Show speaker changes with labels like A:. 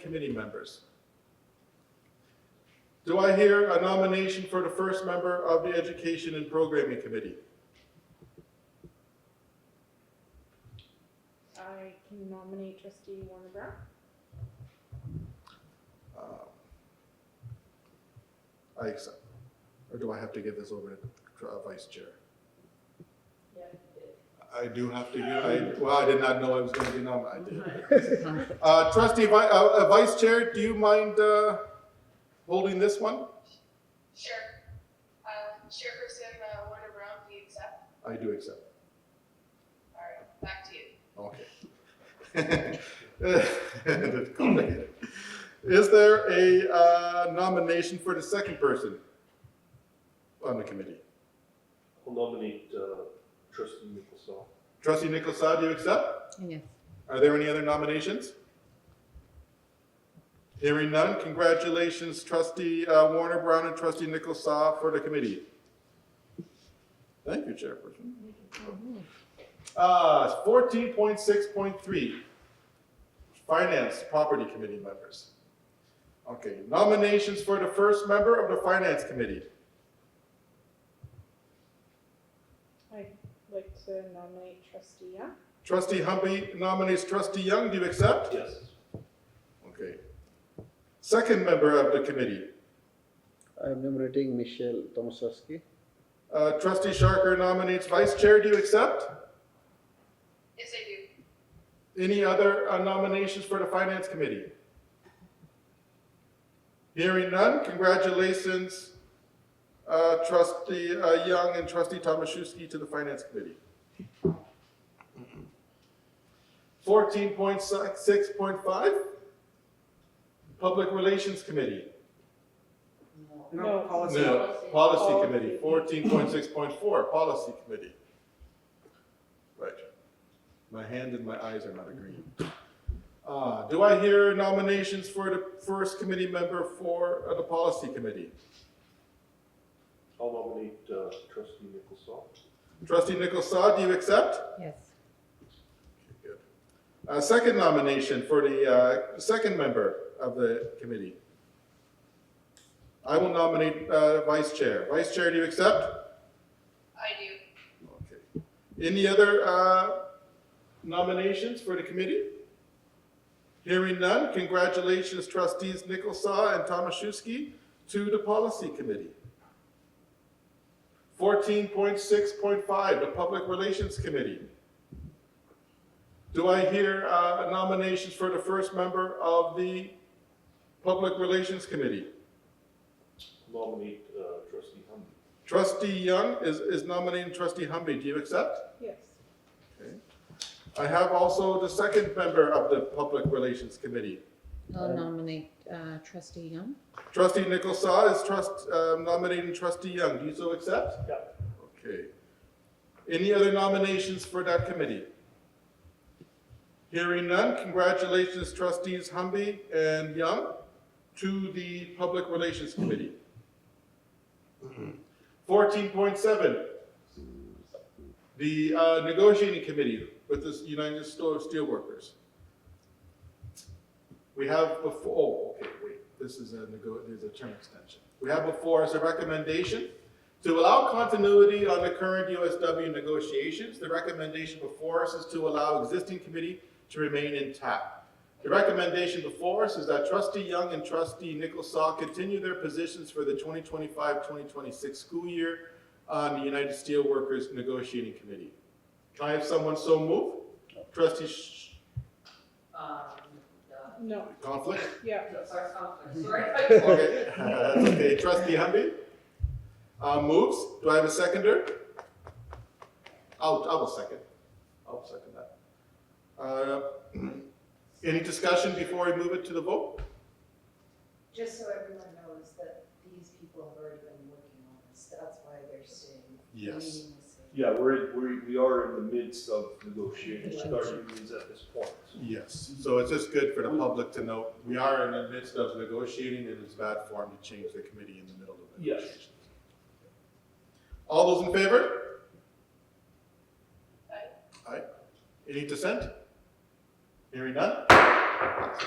A: committee members. Do I hear a nomination for the first member of the Education and Programming Committee?
B: I can nominate trustee Warner Brown.
A: I accept. Or do I have to give this over to the uh, Vice Chair? I do have to, give- I, well, I did not know I was going to be nominated. Uh, Trustee, Vi- uh, uh, Vice Chair, do you mind uh, holding this one?
C: Sure. Um, Chairperson uh, Warner Brown, do you accept?
A: I do accept.
C: All right, back to you.
A: Okay. That's complicated. Is there a uh, nomination for the second person on the committee?
D: I'll nominate uh, trustee Mickelson.
A: Trustee Nicolai, do you accept?
E: Yes.
A: Are there any other nominations? Hearing none, congratulations trustee uh, Warner Brown and trustee Nicolai for the committee. Thank you, Chairperson. Uh, 14.6.3, Finance Property Committee members. Okay, nominations for the first member of the Finance Committee.
B: I'd like to nominate trustee Young.
A: Trustee Humby nominates trustee Young, do you accept?
D: Yes.
A: Okay. Second member of the committee,
F: I am nominating Michelle Tomaszewski.
A: Uh, Trustee Sharker nominates vice chair. Do you accept?
C: Yes, I do.
A: Any other uh, nominations for the finance committee? Hearing none, congratulations, uh, trustee uh, Young and trustee Tomaszewski to the finance committee. Fourteen point six point five, public relations committee.
B: No.
G: policy.
A: No,
B: Policy.
A: policy committee, fourteen point six point four, policy committee. Right. My hand and my eyes are not agreeing. Uh, do I hear nominations for the first committee member for uh, the policy committee?
D: I'll nominate uh, trustee Mickelson.
A: Trustee Nicolsaw, do you accept?
E: Yes.
A: Good. Uh, second nomination for the, uh, second member of the committee. I will nominate, uh, vice chair. Vice chair, do you accept?
C: I do.
A: Okay. Any other uh, nominations for the committee? Hearing none, congratulations trustees Nicholsaw and Tomaszewski to the policy committee. 14.6.5, the Public Relations Committee. Do I hear uh, nominations for the first member of the Public Relations Committee?
D: I'll nominate uh, trustee Humby.
A: Trustee Young is is nominating trustee Humby. Do you accept?
B: Yes.
A: I have also the second member of the Public Relations Committee.
E: I'll nominate uh, trustee Young.
A: Trustee Nicholsaw is trust, um, nominating trustee Young. Do you so accept?
D: Yeah.
A: Okay. Any other nominations for that committee? Hearing none, congratulations trustees Humby and Young to the Public Relations Committee. Fourteen point seven, the uh, negotiating committee with the United Sto- Steelworkers. We have before, oh, okay, wait, this is a nego, there's a term extension. We have before us a recommendation to allow continuity on the current USW negotiations. The recommendation before us is to allow existing committee to remain intact. The recommendation before us is that trustee Young and trustee Nicholsaw continue their positions for the 2025-2026 school year on the United Steelworkers Negotiating Committee. Can I have someone so move? Trustee Sh-
G: Our
B: No,
A: Conflict?
B: yeah.
G: conflict, sorry.
A: Okay, that's okay. Trustee Hamby uh, moves. Do I have a seconder? I'll, I will second. I'll second that. Uh, Any discussion before we move it to the vote?
H: Just so everyone knows that these people have already been working on this, that's why they're staying. meeting this evening.
D: Yeah, we're, we're, we are in the midst of negotiations with our unions at this point.
A: Yes. So it's just good for the public to know, we are in the midst of negotiating and it's bad form to change the committee in the middle of
D: Yes.
A: negotiations. All those in favor?
C: Aye.
A: Aye. Any dissent? Hearing none?